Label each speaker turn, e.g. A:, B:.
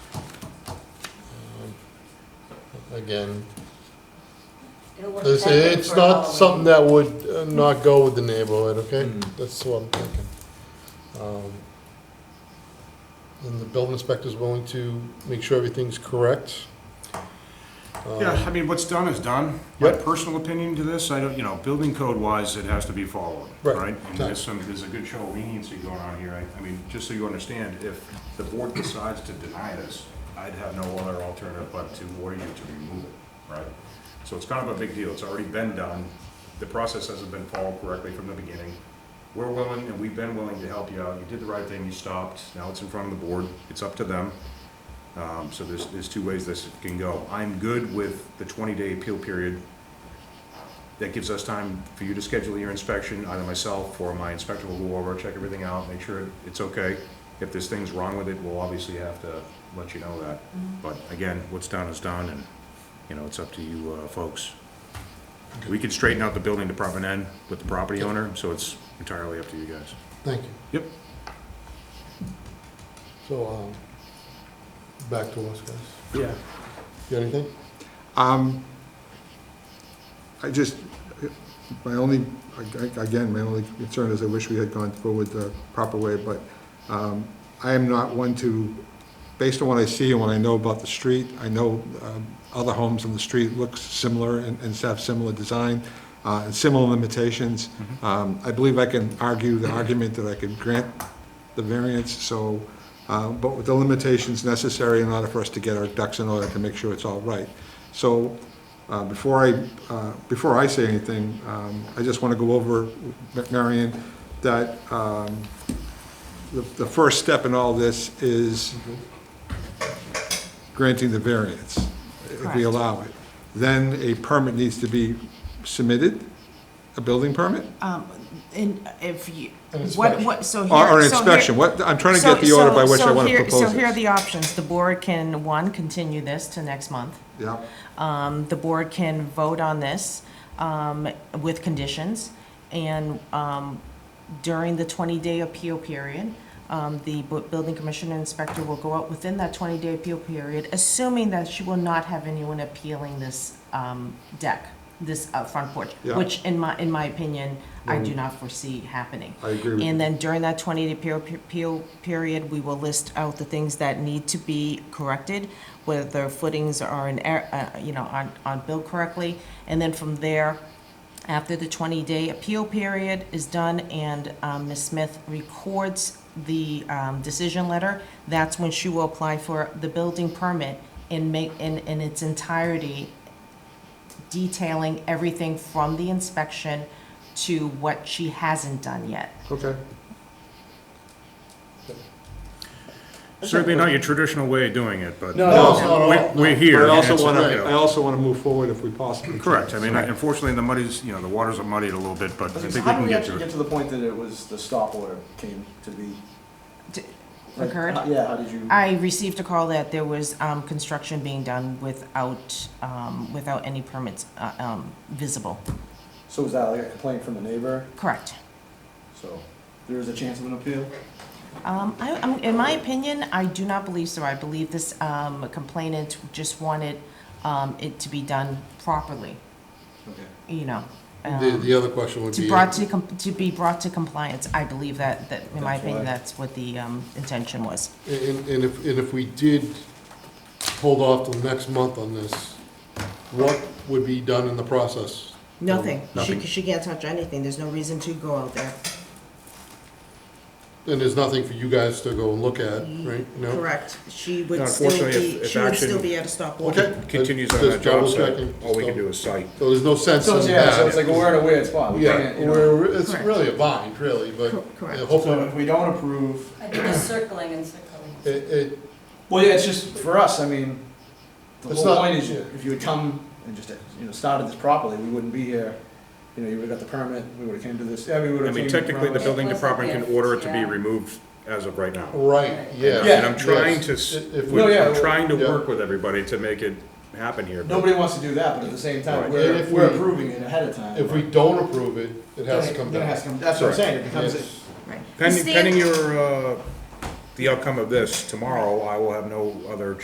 A: again,
B: It wasn't
A: it's,
B: that big
A: it's
B: for
A: not
B: Halloween.
A: something that would uh, not go with the neighborhood, okay?
C: Hmm.
D: Mm.
A: That's what I'm thinking. Um, And the building inspector's willing to make sure everything's correct. Um,
C: Yeah, I mean, what's done is done. My
A: Yep.
C: personal opinion to this, I don't, you know, building code wise, it has to be followed,
A: Right,
C: right? And
A: exactly.
C: there's some, there's a good show of leniency going on here. I, I mean, just so you understand, if the board decides to deny this, I'd have no other alternative but to order you to remove it, right? So it's kind of a big deal. It's already been done. The process hasn't been followed correctly from the beginning. We're willing, and we've been willing to help you out. You did the right thing, you stopped. Now it's in front of the board. It's up to them. Um, so there's, there's two ways this can go. I'm good with the twenty-day appeal period. That gives us time for you to schedule your inspection, either myself or my inspector will go over, check everything out, make sure it's okay. If there's things wrong with it, we'll obviously have to let you know that. But again, what's done is done, and, you know, it's up to you, uh, folks. We can straighten out the building department end with the property owner, so it's entirely up to you guys.
A: Thank you.
C: Yep.
A: So, um, back to us, guys.
D: Yeah.
A: You got anything?
E: Um, I just, my only, again, my only concern is I wish we had gone through with the proper way, but um, I am not one to, based on what I see and what I know about the street, I know um, other homes on the street look similar and and have similar design uh, and similar limitations. Um, I believe I can argue the argument that I could grant the variance, so, uh, but with the limitations necessary in order for us to get our ducks in order to make sure it's all right. So uh, before I, uh, before I say anything, um, I just want to go over, Marion, that um, the the first step in all this is granting the variance, if we
B: Correct.
E: allow it. Then a permit needs to be submitted, a building permit?
F: Um, and if you,
A: An
F: what,
A: inspection.
F: what, so here.
E: Or or an
F: so here-
E: inspection, what, I'm trying to
F: so-
E: get the order by
F: so-
E: which I
F: so
E: want to
F: here-
E: propose
F: So here are
E: this.
F: the options. The board can, one, continue this to next month.
E: Yeah,
F: Um, the board can vote on this, um, with conditions. And, um, during the twenty-day appeal period, um, the bu- building commissioner inspector will go out within that twenty-day appeal period, assuming that she will not have anyone appealing this, um, deck, this, uh, front porch,
E: Yeah.
F: which in my, in my opinion, I do not foresee happening.
E: I agree with you.
F: And then during that 20-day appeal- appeal period, we will list out the things that need to be corrected, whether footings are in, er- uh, you know, aren't aren't built correctly. And then from there, after the 20-day appeal period is done and um, Ms. Smith records the um, decision letter, that's when she will apply for the building permit and make, in in its entirety, detailing everything from the inspection to what she hasn't done yet.
E: okay.
C: Certainly not your traditional way of doing it, but
D: No, no,
A: no,
C: we're, we're here.
E: But I
C: and it's-
E: also want
C: you
E: to,
C: know.
E: I also want to move forward if we possibly can.
C: Correct, I mean,
E: So-
C: unfortunately, the muddies, you know, the waters are muddied a little bit, but I think we
D: How did
C: can
D: we
C: get
D: actually
C: to
D: get
C: it.
D: to the point that it was, the stop order came to be?
F: D-
D: Like,
F: Occurred?
D: how- Yeah, how did you?
F: I received a call that there was um, construction being done without, um, without any permits uh, um, visible.
D: So was that like a complaint from the neighbor?
F: Correct.
D: So there is a chance of an appeal?
F: Um, I, I'm- in my opinion, I do not believe so. I believe this um, complainant just wanted um, it to be done properly,
D: Okay.
F: you know.
A: The,
F: um,
A: the other question would
F: To
A: be,
F: brought to, com- to be brought to compliance. I believe that, that, in my
D: That's
F: opinion,
D: why.
F: that's what the um, intention was.
A: and, and if, and if we did hold off till next month on this, what would be done in the process?
F: Nothing. She,
C: Nothing.
F: she can't touch anything. There's no reason to go out there.
A: And there's nothing for you guys to go and look at, right? No?
F: Mm-hmm. Correct. She would
C: No,
F: still
C: unfortunately, if-
F: be,
C: if
F: she would
C: action-
F: still be at a stop order.
A: Okay.
C: Continues on
A: Just
C: that job
A: double
C: site,
A: checking.
C: all we can do is cite.
A: So there's no sense
D: So,
A: in
D: it's- yeah, so it's
A: that.
D: like, well, we're in a weird spot. We
A: Yeah,
D: can't, you know.
A: we're, it's
F: Correct.
A: really a bind, really, but
F: Cor- correct.
A: yeah,
D: So
A: hopefully,
D: if we don't approve,
B: I think it's circling and circling.
A: it, it,
D: well, yeah, it's just, for us, I mean, the
A: It's
D: whole
A: not-
D: point is you- if you had come and just, you know, started this properly, we wouldn't be here. You know, you would've got the permit, we would've came to this, yeah, we would've.
C: I mean,
D: came
C: technically, the
D: around.
C: building department can order it to be
B: Yeah.
C: removed as of right now.
A: right, yeah.
C: And I'm trying
A: yes.
C: to, s-
A: If- if
C: we-
A: we-
D: Oh, yeah,
C: I'm trying to
A: yeah.
C: work with everybody to make it happen here. but-
D: Nobody wants to do that, but at the same
C: Right.
D: time,
A: And
D: we're,
A: if
D: we're
A: we-
D: approving it ahead of time.
A: If we don't approve it, it has to
D: Then it-
A: come
D: then it
A: down.
D: has to come- That's what I'm
C: Right.
D: saying, it becomes, a-
A: Yes.
F: Right.
C: Pending,
F: Stand-
C: pending your, uh, the outcome of this tomorrow, I will have no other